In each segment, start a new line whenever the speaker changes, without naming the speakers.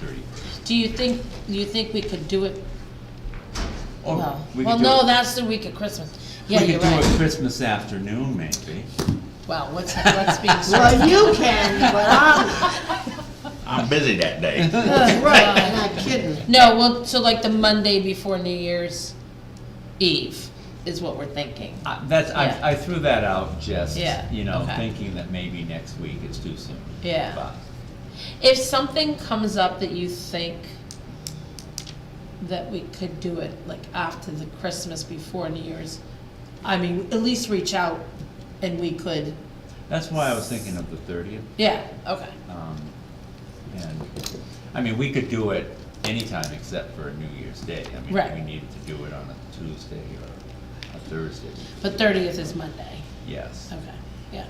thirty-first.
Do you think, do you think we could do it?
Or
no.
Oh, we could
Well,
do
no,
it-
that's the week of Christmas. Yeah, you're
We could do it
right.
Christmas afternoon, maybe.
Well, let's, let's be.
Well, you can, but I'm,
I'm busy that day.
right, not kidding.
No, well, so like the Monday before New Year's Eve is what we're thinking.
I- That's,
Yeah.
I, I threw that out just,
Yeah,
you know,
okay.
thinking that maybe next week it's too soon.
Yeah.
But
If something comes up that you think that we could do it like after the Christmas before New Year's, I mean, at least reach out and we could,
That's why I was thinking of the thirtieth.
yeah, okay.
Um, And, I mean, we could do it anytime except for New Year's Day. I mean,
Right.
we needed to do it on a Tuesday or a Thursday,
But thirtieth is Monday,
yes.
okay, yeah.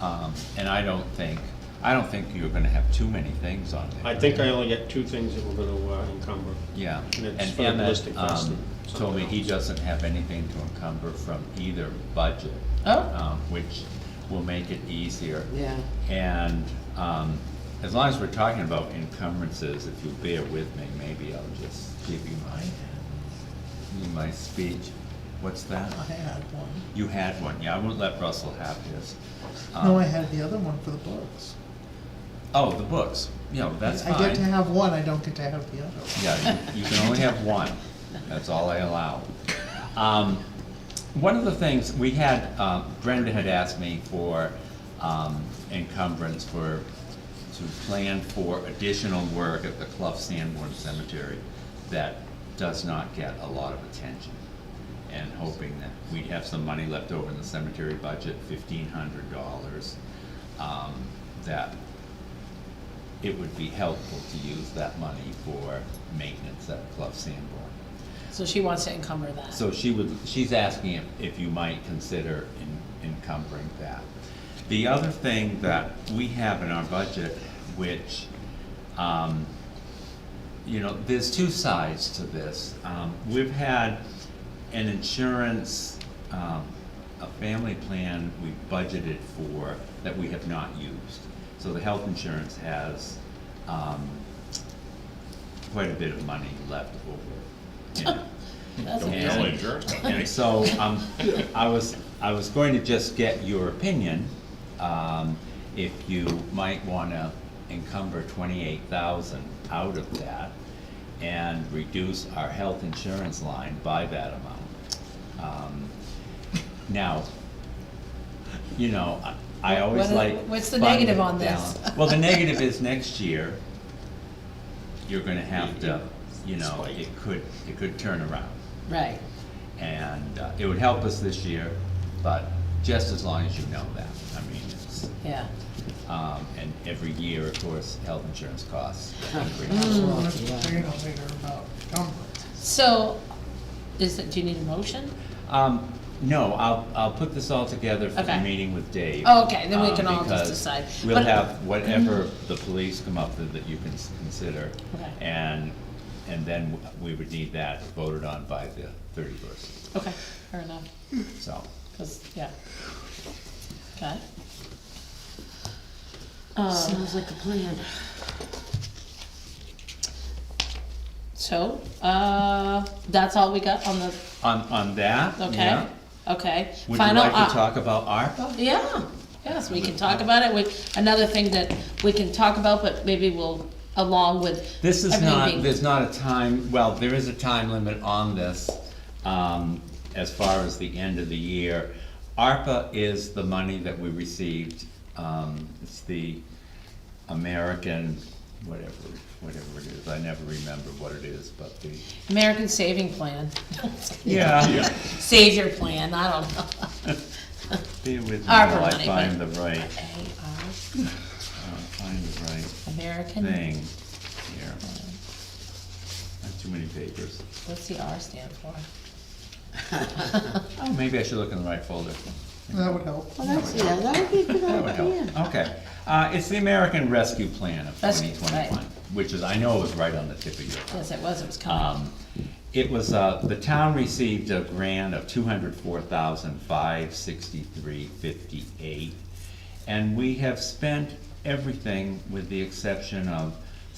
Um, And I don't think, I don't think you're gonna have too many things on there.
I think I only got two things that we're gonna uh, encumber.
Yeah.
And it's
And
for
Emmett
ballistic vest
um,
and
told me
something
he
else.
doesn't have anything to encumber from either budget,
Oh,
um, which will make it easier.
Yeah.
And um, as long as we're talking about encumbrances, if you bear with me, maybe I'll just give you my, you my speech. What's that?
I had one.
You had one, yeah, I won't let Russell have his.
No,
Um,
I had the other one for the books.
Oh, the books, you know, that's fine.
I get to have one, I don't get to have the other.
Yeah, you you can only have one, that's all I allow. Um, One of the things, we had, um, Brenda had asked me for um, encumbrance for, to plan for additional work at the Clough Sanborn Cemetery that does not get a lot of attention, and hoping that we'd have some money left over in the cemetery budget, fifteen hundred dollars, um, that it would be helpful to use that money for maintenance at Clough Sanborn.
so she wants to encumber that.
So she would, she's asking if, if you might consider en- encumbering that. The other thing that we have in our budget, which, um, you know, there's two sides to this. Um, we've had an insurance, um, a family plan we budgeted for that we have not used. So the health insurance has, um, quite a bit of money left over in it.
That's
Don't
amazing.
tell insurance company.
And so, um, I was, I was going to just get your opinion, um, if you might wanna encumber twenty-eight thousand out of that and reduce our health insurance line by that amount. Um, Now, you know, I I always
What are-
like.
what's the
fund
negative on this?
balance. Well, the negative is next year, you're gonna have to, you know, it could, it could turn around.
Right,
And uh, it would help us this year, but just as long as you know that. I mean, it's,
yeah.
um, and every year, of course, health insurance costs increase.
So I'm gonna complain later about encumbrance.
So, is it, do you need a motion?
Um, no, I'll, I'll put this all together for the
Mm-hmm. Okay.
meeting with Dave.
Oh, okay, then we
um,
can all just
because
decide.
We'll
But- mm-hmm.
have whatever the police come up with that you can s- consider.
Okay.
And, and then w- we would need that voted on by the thirty-first,
Okay, fair enough,
so.
'cause- yeah. Okay. Um,
like a plan.
so, uh, that's all we got on the,
On, on that,
okay,
yeah.
okay.
Would you
Final. uh,
like
op-
to talk about ARPA?
Yeah, yes, we can talk about it, with, another thing that we can talk about, but maybe we'll, along with.
This is
everything
not,
being-
there's not a time, well, there is a time limit on this, um, as far as the end of the year. ARPA is the money that we received, um, it's the American, whatever, whatever it is, I never remember what it is, but the.
American Saving Plan,
Yeah.
Save Your Plan, I don't know.
Be with me while
ARPA
I
money,
find the
but-
right,
A-R,
uh, find the right
American.
thing here. Not too many papers.
What's the R stand for?
Oh, maybe I should look in the right folder.
That would help.
Well, that's, yeah, that would be a good
That would
idea.
help, okay. Uh, it's the American Rescue Plan of
Rescue,
twenty
right.
twenty-one, which is, I know it was right on the tip of your tongue.
Yes, it was, it was coming.
Um, it was, uh, the town received a grant of two hundred four thousand five sixty-three fifty-eight. And we have spent everything with the exception of